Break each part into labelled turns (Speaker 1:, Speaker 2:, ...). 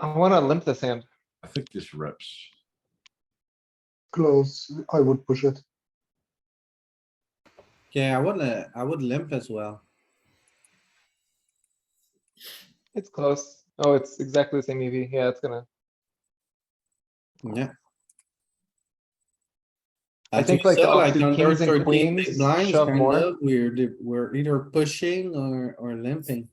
Speaker 1: I wanna limp this hand.
Speaker 2: I think this rips.
Speaker 3: Close, I would push it.
Speaker 4: Yeah, I wouldn't, I would limp as well.
Speaker 1: It's close. Oh, it's exactly the same EV. Yeah, it's gonna,
Speaker 4: Yeah.
Speaker 1: I think, like, the
Speaker 4: so,
Speaker 1: offsuit
Speaker 4: on their
Speaker 1: kings and
Speaker 4: 13 big
Speaker 1: queens
Speaker 4: blinds,
Speaker 1: shove
Speaker 4: kind
Speaker 1: more.
Speaker 4: of, We're, di- we're either pushing or, or limping.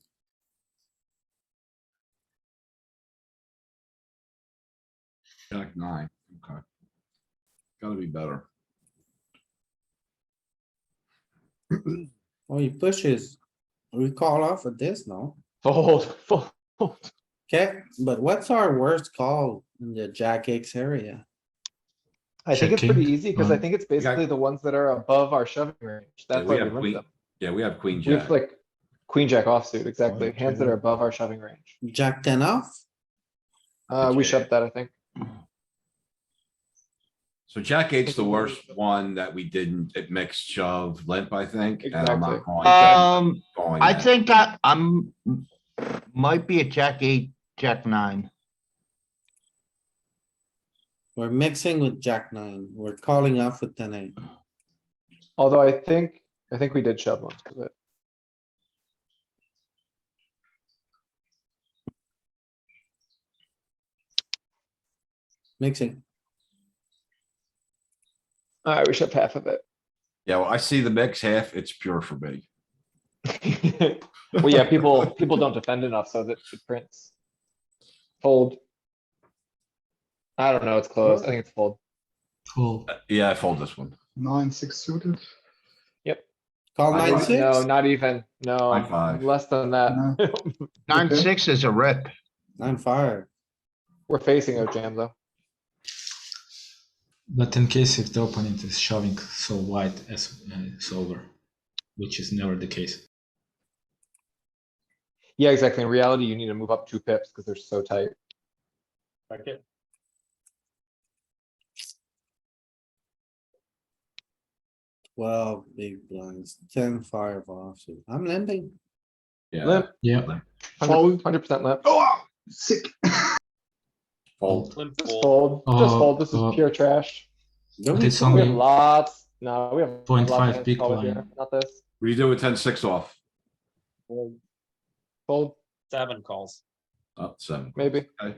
Speaker 2: Jack nine, okay. Gotta be better.
Speaker 4: Oh, he pushes. We call off at this, no?
Speaker 1: fold, fold.
Speaker 4: Okay, but what's our worst call in the jack X area?
Speaker 1: I think it's pretty easy, cuz I think it's
Speaker 2: got-
Speaker 1: basically the ones that are above our shoving range. That's
Speaker 2: we
Speaker 1: why
Speaker 2: have
Speaker 1: we limp
Speaker 2: queen-
Speaker 1: them.
Speaker 2: Yeah, we have queen
Speaker 1: We
Speaker 2: jack.
Speaker 1: have like queen jack offsuit, exactly.
Speaker 2: One,
Speaker 1: Hands that
Speaker 2: two.
Speaker 1: are above our shoving range.
Speaker 4: Jack ten off?
Speaker 1: Uh, we
Speaker 2: Okay.
Speaker 1: shoved that, I think.
Speaker 2: So jack eight's the worst one that we didn't, it mixed shove limp, I think, and I'm
Speaker 1: Exactly.
Speaker 2: not calling that.
Speaker 5: Um,
Speaker 2: calling
Speaker 5: I
Speaker 2: that.
Speaker 5: think I, I'm, might be a jack eight, jack nine.
Speaker 4: We're mixing with jack nine. We're calling off with ten eight.
Speaker 1: Although I think, I think we did shove one. 'cause it-
Speaker 4: Mixing.
Speaker 1: Alright, we shoved half of it.
Speaker 2: Yeah, well, I see the mix half, it's pure for me.
Speaker 1: Well, yeah, people, people don't defend enough so that it prints. Fold. I don't know, it's close. I think it's fold.
Speaker 2: Yeah, I fold this one.
Speaker 3: Nine, six suited.
Speaker 4: Call
Speaker 2: I
Speaker 4: nine
Speaker 2: like-
Speaker 4: six?
Speaker 1: No, not even,
Speaker 2: High
Speaker 1: no,
Speaker 2: five.
Speaker 1: less than that.
Speaker 5: Nine,
Speaker 3: Okay.
Speaker 5: six is a rip.
Speaker 4: Nine five.
Speaker 1: We're facing a jam though.
Speaker 6: But in case if the opponent is shoving so wide as uh, it's over, which is never the case.
Speaker 1: Yeah, exactly. In reality, you need to move up two pips because they're so tight.
Speaker 4: Well, big blinds, ten five offsuit. I'm limping.
Speaker 2: Yeah,
Speaker 1: Limp,
Speaker 6: Yeah.
Speaker 1: hundred, hundred percent limp.
Speaker 3: Oh, sick.
Speaker 2: fold.
Speaker 1: Just fold, just
Speaker 6: Uh,
Speaker 1: fold. This is
Speaker 6: uh,
Speaker 1: pure trash.
Speaker 4: Don't
Speaker 6: But
Speaker 4: we
Speaker 6: it's
Speaker 4: call
Speaker 1: We have
Speaker 6: only-
Speaker 1: lots, no, we have. lots of
Speaker 6: 0.5
Speaker 1: hands
Speaker 6: big
Speaker 1: called
Speaker 6: blind.
Speaker 1: here, Not this.
Speaker 2: What do you do with ten six off?
Speaker 1: Fold,
Speaker 7: Seven calls.
Speaker 2: Up uh, seven.
Speaker 1: maybe.
Speaker 7: Yeah.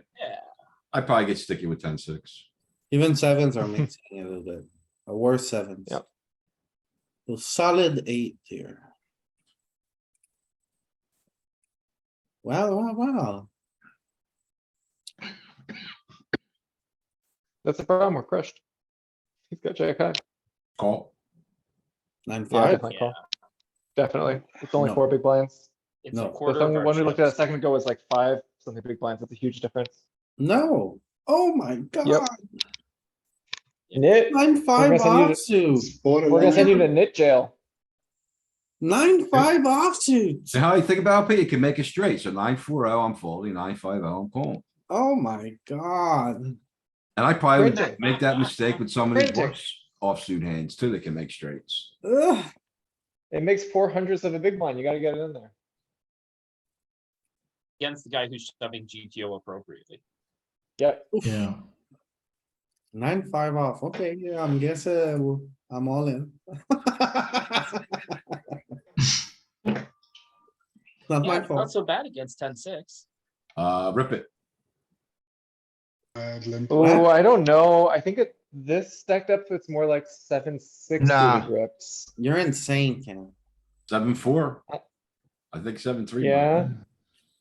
Speaker 2: I probably get sticky with ten six.
Speaker 4: Even sevens are mixing a little bit, a worse sevens.
Speaker 1: Yep.
Speaker 4: So solid eight here. Well, wow, wow,
Speaker 1: That's the problem. We're crushed. He's got jack high.
Speaker 2: Call.
Speaker 4: nine,
Speaker 1: Yeah,
Speaker 4: five,
Speaker 1: definitely call. Definitely. It's only
Speaker 4: No.
Speaker 1: four big blinds.
Speaker 7: It's a
Speaker 4: No.
Speaker 1: The
Speaker 7: quarter of
Speaker 1: thing-
Speaker 7: our
Speaker 1: one we looked at a
Speaker 7: chips.
Speaker 1: second ago was like five, something big blinds. That's a huge difference.
Speaker 4: no, oh my god,
Speaker 1: Nit,
Speaker 4: nine, five
Speaker 1: We're gonna
Speaker 4: offsuit,
Speaker 1: we're gonna send you to nit jail.
Speaker 4: nine, five offsuit.
Speaker 2: See how you think about it? You can make it straight. So nine four oh, I'm folding, nine five oh, I'm calling.
Speaker 4: Oh my god,
Speaker 2: And I probably would
Speaker 1: Printing.
Speaker 2: make that mistake with some of these
Speaker 1: Printing.
Speaker 2: worse offsuit hands too, that can make straights.
Speaker 4: ugh,
Speaker 1: It makes four hundredths of a big blind. You gotta get it in there.
Speaker 7: Against the guy who's shoving GTO appropriately.
Speaker 1: Yep.
Speaker 6: Yeah.
Speaker 4: nine, five off, okay, yeah, I'm guessing, I'm all in. Not
Speaker 7: Yeah,
Speaker 4: my
Speaker 7: it's not
Speaker 4: fault,
Speaker 7: so bad against ten six.
Speaker 2: Uh, rip it.
Speaker 3: Uh,
Speaker 1: Oh, I don't know. I think it, this stacked up, it's more like seven, six
Speaker 5: Nah.
Speaker 1: suited rips.
Speaker 4: you're insane, Ken.
Speaker 2: Seven four. I think seven three.
Speaker 1: Yeah,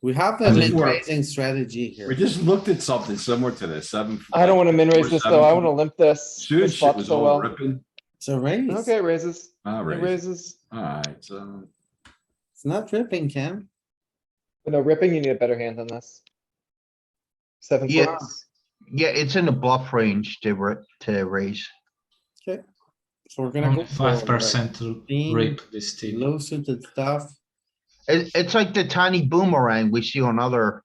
Speaker 4: We have
Speaker 2: I
Speaker 4: the
Speaker 2: think
Speaker 4: mid
Speaker 2: we're-
Speaker 4: raising strategy here.
Speaker 2: We just wanna- we just looked at something similar to this, seven.
Speaker 1: I don't wanna min raise this though. I wanna limp this.
Speaker 2: Shoot,
Speaker 1: This
Speaker 2: shit
Speaker 1: flops
Speaker 2: was
Speaker 1: so
Speaker 2: all
Speaker 1: well.
Speaker 2: ripping.
Speaker 4: It's a raise.
Speaker 1: Okay, it raises,
Speaker 2: All
Speaker 1: it
Speaker 2: right,
Speaker 1: raises.
Speaker 2: all right, so.
Speaker 4: It's not ripping, Ken.
Speaker 1: No, ripping, you need a better hand than this. Seven,
Speaker 5: Yeah.
Speaker 1: six.
Speaker 5: Yeah, it's in the bluff range to ri- to raise.
Speaker 4: So we're gonna go.
Speaker 6: Only
Speaker 4: for,
Speaker 6: five percent
Speaker 4: Being
Speaker 6: rape this
Speaker 4: uh,
Speaker 6: table.
Speaker 4: Low suited stuff.
Speaker 5: It, it's like the tiny boomerang we see on other,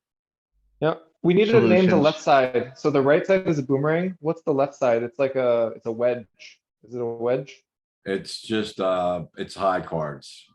Speaker 1: Yeah, we need to name the
Speaker 5: Solutions.
Speaker 1: left side. So the right side is a boomerang. What's the left side? It's like a, it's a wedge. Is it a wedge?
Speaker 2: It's just, uh, it's high cards.